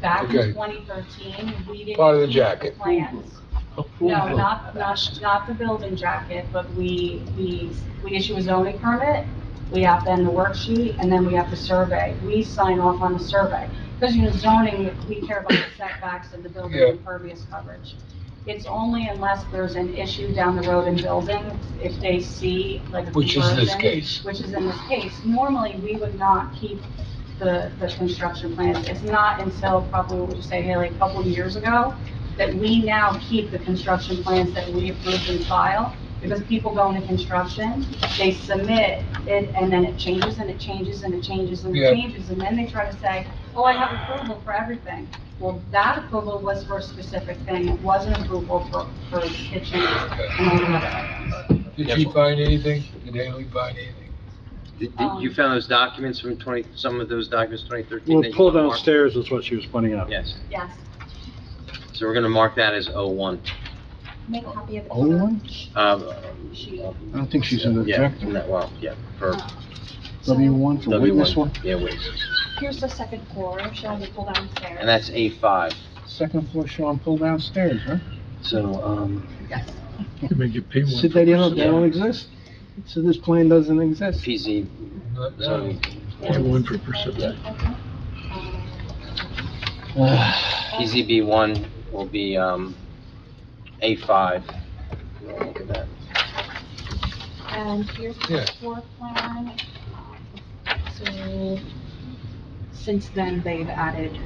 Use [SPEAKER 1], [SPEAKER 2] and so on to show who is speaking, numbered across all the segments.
[SPEAKER 1] back
[SPEAKER 2] Okay.
[SPEAKER 1] in 2013, we didn't.
[SPEAKER 2] Part of the
[SPEAKER 1] keep
[SPEAKER 2] jacket.
[SPEAKER 1] Plans. No, not, not, not the building jacket, but we, we, we issue a zoning permit, we have then the worksheet, and then we have the survey. We sign off on the survey. Because, you know, zoning, we care about the setbacks and the building
[SPEAKER 2] Yeah.
[SPEAKER 1] impervious coverage. It's only unless there's an issue down the road in building, if they see like a
[SPEAKER 2] Which is this
[SPEAKER 1] conversion,
[SPEAKER 2] case.
[SPEAKER 1] Which is in this case. Normally, we would not keep the, the construction plans. It's not until probably, what would you say, Haley, a couple of years ago, that we now keep the construction plans that we approved and file, because people go into construction, they submit it, and then it changes, and it changes, and it changes, and
[SPEAKER 2] Yeah.
[SPEAKER 1] it changes, and then they try to say, oh, I have approval for everything. Well, that approval was for a specific thing, it wasn't approval for, for kitchens and all the other items.
[SPEAKER 2] Did she find anything? Did Haley find anything?
[SPEAKER 3] Did- did- You found those documents from 20, some of those documents, 2013?
[SPEAKER 4] Well, pull downstairs is what she was pointing out.
[SPEAKER 3] Yes,
[SPEAKER 1] Yes.
[SPEAKER 3] so we're going to mark that as 01.
[SPEAKER 1] Make a copy of the.
[SPEAKER 4] Old Oh, one?
[SPEAKER 3] Um,
[SPEAKER 1] She-
[SPEAKER 4] I don't think she's in the
[SPEAKER 3] Yeah,
[SPEAKER 4] objective.
[SPEAKER 3] no, well, yeah, for
[SPEAKER 4] W one for witness
[SPEAKER 3] W1.
[SPEAKER 4] one,
[SPEAKER 3] Yeah, witness.
[SPEAKER 5] Here's the second floor, shall we pull downstairs?
[SPEAKER 3] And that's A5.
[SPEAKER 4] second floor, Sean, pull downstairs, huh?
[SPEAKER 3] So, um,
[SPEAKER 1] Yes.
[SPEAKER 4] See, they don't, they don't exist. So this plan doesn't exist.
[SPEAKER 3] PZ
[SPEAKER 2] Not
[SPEAKER 3] zoning.
[SPEAKER 2] done.
[SPEAKER 3] board, PZB1 will be um, A5. We'll Look at that.
[SPEAKER 5] And here's
[SPEAKER 2] Yeah.
[SPEAKER 5] the floor plan. So, since then, they've added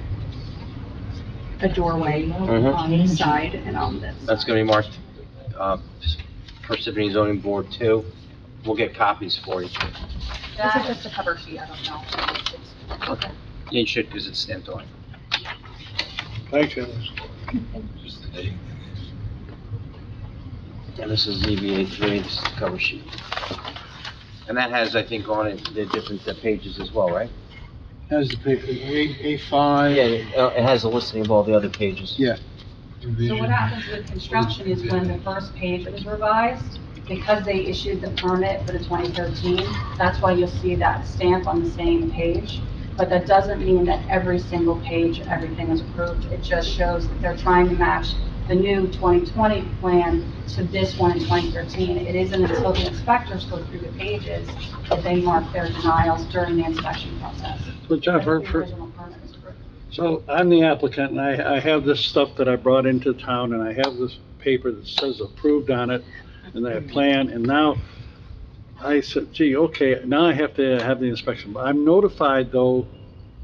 [SPEAKER 5] a doorway
[SPEAKER 3] Mhm.
[SPEAKER 5] on this side and on this.
[SPEAKER 3] That's going to be marked uh, Parsippany Zoning Board 2. We'll get copies for you.
[SPEAKER 1] This is just a cover sheet, I don't know.
[SPEAKER 3] Yeah, You should, because it's stamped on.
[SPEAKER 4] Thanks, Dennis.
[SPEAKER 2] Just the date.
[SPEAKER 3] And this is ZBA three, this is the cover sheet. And that has, I think, on it, the different the pages as well, right?
[SPEAKER 4] Has the paper, A, A five.
[SPEAKER 3] Yeah, it uh, it has a listing of all the other pages.
[SPEAKER 4] Yeah.
[SPEAKER 1] So what happens with construction is when the first page was revised, because they issued the permit for the 2013, that's why you'll see that stamp on the same page. But that doesn't mean that every single page, everything is approved. It just shows that they're trying to match the new 2020 plan to this one in 2013. It isn't until the inspectors go through the pages that they mark their denials during the inspection process.
[SPEAKER 4] So John, for,
[SPEAKER 1] That's the
[SPEAKER 4] for,
[SPEAKER 1] original permit was approved.
[SPEAKER 4] so I'm the applicant and I, I have this stuff that I brought into town and I have this paper that says approved on it and that plan and now I said, gee, okay, now I have to have the inspection. But I'm notified though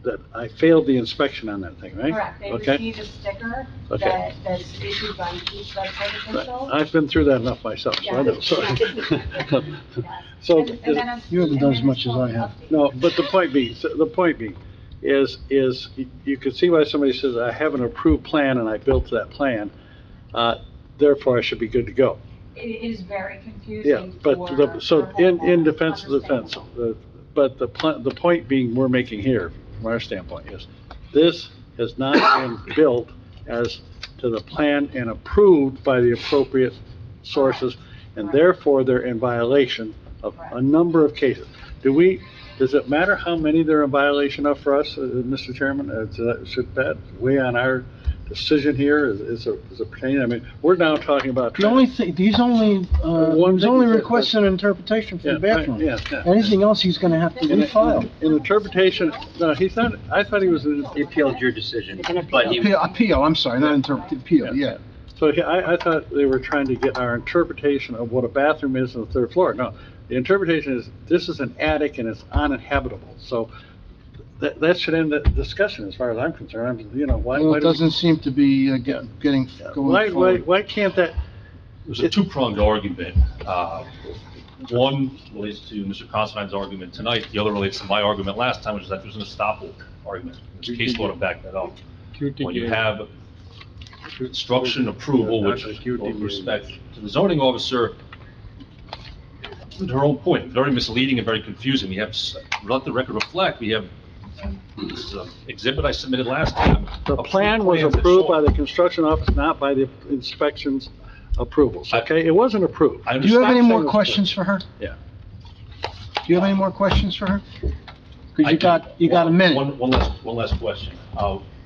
[SPEAKER 4] that I failed the inspection on that thing, right?
[SPEAKER 1] Correct, they
[SPEAKER 4] Okay.
[SPEAKER 1] receive a sticker
[SPEAKER 4] Okay.
[SPEAKER 1] that, that's issued by each subsite official.
[SPEAKER 4] I've been through that enough myself, so I know,
[SPEAKER 1] Yeah.
[SPEAKER 4] sorry.
[SPEAKER 1] Yes.
[SPEAKER 4] So,
[SPEAKER 1] And- and then it's-
[SPEAKER 6] You haven't
[SPEAKER 1] and then
[SPEAKER 6] done as
[SPEAKER 1] it's
[SPEAKER 6] much as
[SPEAKER 1] called
[SPEAKER 6] I have.
[SPEAKER 1] update.
[SPEAKER 4] No, but the point being, so the point being, is, is you can see why somebody says, I have an approved plan and I built that plan, uh, therefore I should be good to go.
[SPEAKER 1] It is very confusing.
[SPEAKER 4] Yeah, but the,
[SPEAKER 1] for-
[SPEAKER 4] so
[SPEAKER 1] uh, for
[SPEAKER 4] in, in
[SPEAKER 1] homeowners.
[SPEAKER 4] defense of the fence,
[SPEAKER 1] Understandable.
[SPEAKER 4] the- but the, pla- the point being we're making here, from our standpoint, is this has not been built as to the plan and approved by the appropriate sources, and
[SPEAKER 1] Correct.
[SPEAKER 4] therefore they're in violation of a
[SPEAKER 1] Correct.
[SPEAKER 4] number of cases. Do we, does it matter how many they're in violation of for us, uh, Mr. Chairman? Uh, does that- Should that weigh on our decision here? Is, is it- is it pertaining, I mean, we're now talking about.
[SPEAKER 6] The only thing, he's only, uh,
[SPEAKER 4] One
[SPEAKER 6] he's
[SPEAKER 4] thing
[SPEAKER 6] only
[SPEAKER 4] is that-
[SPEAKER 6] requesting interpretation for
[SPEAKER 4] Yeah,
[SPEAKER 6] the bathroom.
[SPEAKER 4] Yeah, yeah.
[SPEAKER 6] Anything else, he's gonna have to
[SPEAKER 4] In-
[SPEAKER 6] refile.
[SPEAKER 4] In interpretation, no, he's not, I thought he was, in-
[SPEAKER 3] He appealed your decision, but he,
[SPEAKER 6] Appeal, appeal, I'm sorry, not interpret, appeal, yeah.
[SPEAKER 4] so he- I, I thought they were trying to get our interpretation of what a bathroom is on the third floor. No, the interpretation is, this is an attic and it's uninhabitable, so that, that should end the discussion as far as I'm concerned. I'm, you know, why,
[SPEAKER 6] Well,
[SPEAKER 4] why
[SPEAKER 6] it
[SPEAKER 4] does,
[SPEAKER 6] doesn't seem to be uh, get- getting,
[SPEAKER 4] why,
[SPEAKER 6] going
[SPEAKER 4] why,
[SPEAKER 6] forward.
[SPEAKER 4] why can't that,
[SPEAKER 7] There's a two-pronged argument. Uh, One relates to Mr. Constantine's argument tonight, the other relates to my argument last time, which is that there's an estoppel argument. There's case law to back that up. When you have construction approval, which, with all due respect to the zoning officer, to her own point, very misleading and very confusing. We have, s- let the record reflect, we have, this is an exhibit I submitted last time.
[SPEAKER 4] the plan was approved by the construction office, not by the inspections approvals,
[SPEAKER 7] I-
[SPEAKER 4] okay? It wasn't approved.
[SPEAKER 7] I
[SPEAKER 6] Do you have
[SPEAKER 7] understand.
[SPEAKER 6] any more
[SPEAKER 4] Stop saying-
[SPEAKER 6] questions for her?
[SPEAKER 4] Yeah.
[SPEAKER 6] Do you have any more questions for her? Because
[SPEAKER 7] I
[SPEAKER 6] you
[SPEAKER 7] do.
[SPEAKER 6] got, you got a minute.
[SPEAKER 7] One, one last, one last question. Uh,